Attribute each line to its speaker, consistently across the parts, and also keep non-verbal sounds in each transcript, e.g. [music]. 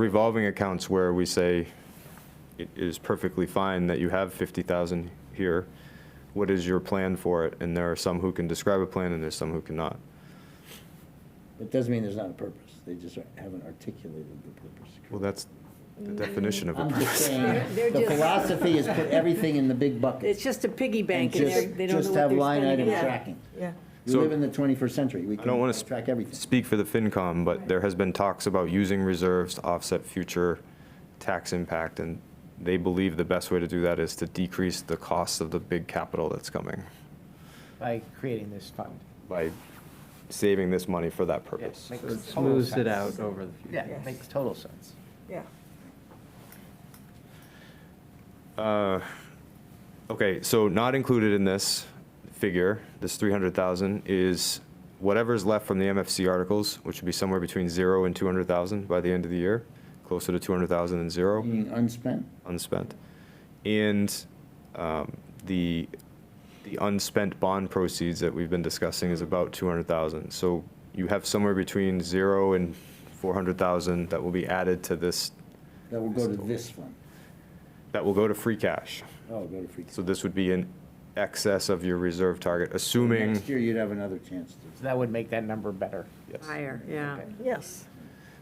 Speaker 1: revolving accounts where we say it is perfectly fine that you have 50,000 here, what is your plan for it? And there are some who can describe a plan and there's some who cannot.
Speaker 2: It doesn't mean there's not a purpose, they just aren't- haven't articulated the purpose.
Speaker 1: Well, that's the definition of a
Speaker 2: I'm just
Speaker 1: purpose.
Speaker 2: saying,
Speaker 3: They're- they're
Speaker 2: the
Speaker 3: just-
Speaker 2: philosophy is put everything in the big bucket.
Speaker 3: It's just a piggy
Speaker 2: and
Speaker 3: bank and they're-
Speaker 2: just
Speaker 3: they don't know
Speaker 2: just
Speaker 3: what they're
Speaker 2: have line
Speaker 3: spending
Speaker 2: item
Speaker 3: it on.
Speaker 2: tracking.
Speaker 4: Yeah,
Speaker 2: We
Speaker 1: So-
Speaker 2: live in the 21st century, we
Speaker 1: I don't
Speaker 2: can
Speaker 1: want to
Speaker 2: track everything.
Speaker 1: speak for the FinCom, but there has been talks about using reserves to offset future tax impact, and they believe the best way to do that is to decrease the cost of the big capital that's coming
Speaker 5: by creating this fund.
Speaker 1: by saving this money for that
Speaker 5: Yes,
Speaker 1: purpose.
Speaker 5: makes
Speaker 6: It
Speaker 5: total
Speaker 6: smooths it
Speaker 5: sense.
Speaker 6: out over the future.
Speaker 5: Yeah, it makes total sense.
Speaker 4: yeah.
Speaker 1: Uh, Okay, so not included in this figure, this 300,000, is whatever's left from the MFC articles, which would be somewhere between zero and 200,000 by the end of the year, closer to 200,000 than zero,
Speaker 2: Meaning unspent,
Speaker 1: unspent. And um, the, the unspent bond proceeds that we've been discussing is about 200,000. So you have somewhere between zero and 400,000 that will be added to this,
Speaker 2: that will go to this fund.
Speaker 1: that will go to free cash.
Speaker 2: Oh, go to free.
Speaker 1: So this would be in excess of your reserve target, assuming,
Speaker 2: Next year, you'd have another chance to.
Speaker 5: So that would make that number better.
Speaker 1: yes.
Speaker 3: Higher, yeah.
Speaker 5: Okay.
Speaker 4: Yes.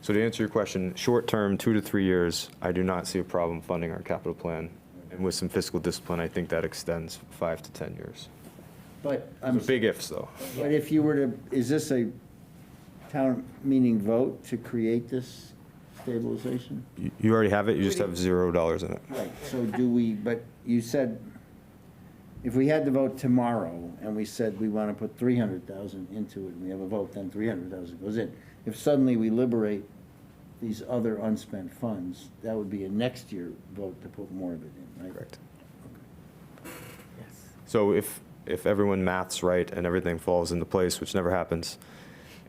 Speaker 1: So to answer your question, short-term, two to three years, I do not see a problem funding our capital plan. And with some fiscal discipline, I think that extends five to 10 years.
Speaker 2: But I'm.
Speaker 1: Those are Big ifs, though.
Speaker 2: But if you were to, is this a town meeting vote to create this stabilization?
Speaker 1: You- You already have it, you just have $0 in it.
Speaker 2: Right, so do we, but you said, if we had the vote tomorrow, and we said we want to put three hundred thousand into it, and we have a vote, then three hundred thousand goes in. If suddenly we liberate these other unspent funds, that would be a next year vote to put more of it in, right?
Speaker 1: Correct.
Speaker 5: Yes.
Speaker 1: So if, if everyone maths right and everything falls into place, which never happens,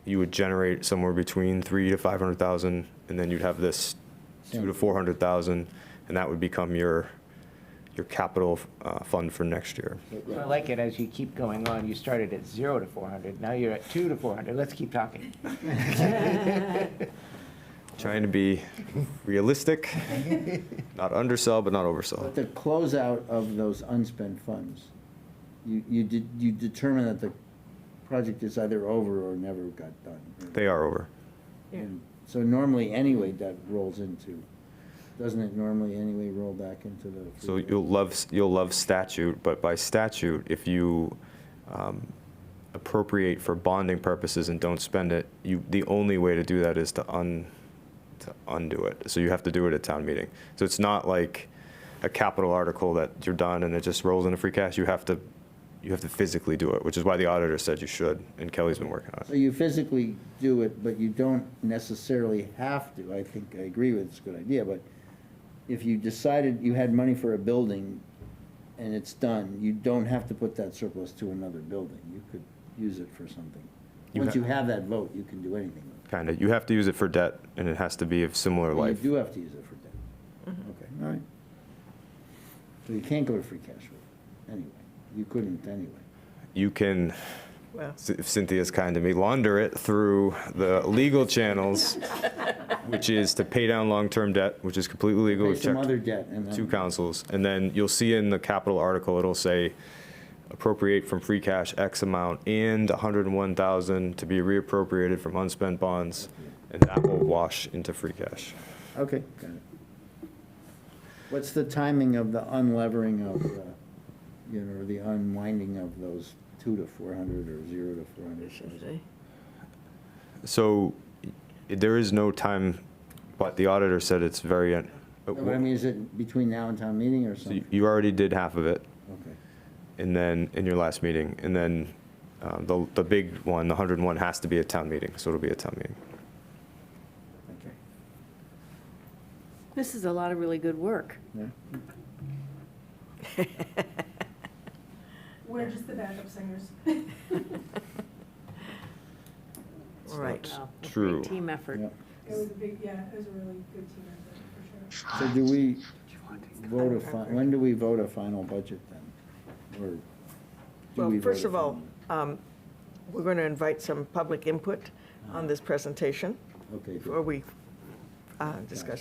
Speaker 1: you would generate somewhere between three to 500,000, and then you'd have this two to 400,000, and that would become your, your capital uh, fund for next year.
Speaker 5: So I like it as you keep going on. You started at zero to 400, now you're at two to 400. Let's keep talking.
Speaker 1: Trying to be realistic, not undersell, but not oversell.
Speaker 2: But the closeout of those unspent funds, you, you did, you determine that the project is either over or never got done.
Speaker 1: They are over.
Speaker 2: And So normally, anyway, that rolls into, doesn't it normally anyway roll back into the?
Speaker 1: So you'll love, you'll love statute, but by statute, if you um, appropriate for bonding purposes and don't spend it, you, the only way to do that is to un, to undo it. So you have to do it at town meeting. So it's not like a capital article that you're done and it just rolls into free cash. You have to, you have to physically do it, which is why the auditor said you should, and Kelly's been working on
Speaker 2: So
Speaker 1: it.
Speaker 2: you physically do it, but you don't necessarily have to. I think, I agree with, it's a good idea, but if you decided you had money for a building and it's done, you don't have to put that surplus to another building. You could use it for something.
Speaker 1: You
Speaker 2: Once
Speaker 1: ha-
Speaker 2: you have that vote, you can do anything. with
Speaker 1: Kind of. You have to use it for debt, and it has to be of similar
Speaker 2: it. But You
Speaker 1: life.
Speaker 2: do have to use it for debt. Okay, all right. So you can't go to free cash with it, anyway. You couldn't anyway.
Speaker 1: You can,
Speaker 4: Well,
Speaker 1: C- if Cynthia's kind to me, launder it through the legal channels, which is to pay down long-term debt, which is completely legal.
Speaker 2: Pay
Speaker 1: We've
Speaker 2: some
Speaker 1: checked
Speaker 2: other debt and then.
Speaker 1: Two councils. And then you'll see in the capital article, it'll say appropriate from free cash X amount and 101,000 to be reappropriated from unspent bonds. And that will wash into free cash.
Speaker 2: Okay, got it. What's the timing of the unlevering of, uh, you know, the unwinding of those two to four hundred or zero to four hundred?
Speaker 1: So y- there is no time, but the auditor said it's very, un-
Speaker 2: But I mean, is it between now and town meeting or
Speaker 1: So you-
Speaker 2: something?
Speaker 1: you already did half of it.
Speaker 2: Okay.
Speaker 1: And then, in your last meeting, and then um, the, the big one, the 101, has to be a town meeting, so it'll be a town meeting.
Speaker 2: Okay.
Speaker 3: This is a lot of really good
Speaker 4: [laughs]
Speaker 3: work.
Speaker 2: Yeah.
Speaker 7: We're just the backup singers.
Speaker 1: It's
Speaker 4: all
Speaker 1: not
Speaker 4: right.
Speaker 3: Wow, a great
Speaker 1: True.
Speaker 3: Team effort.
Speaker 2: Yeah.
Speaker 7: It was a big, yeah, it was a really good team effort, for sure.
Speaker 2: So do we vote a, fi- when do we vote a final budget then? Or do we
Speaker 4: well,
Speaker 2: vote
Speaker 4: first
Speaker 2: a
Speaker 4: of all,
Speaker 2: final-
Speaker 4: um, we're going to invite some public input on this presentation
Speaker 2: Okay,
Speaker 4: before
Speaker 2: good.
Speaker 4: we uh, discussion.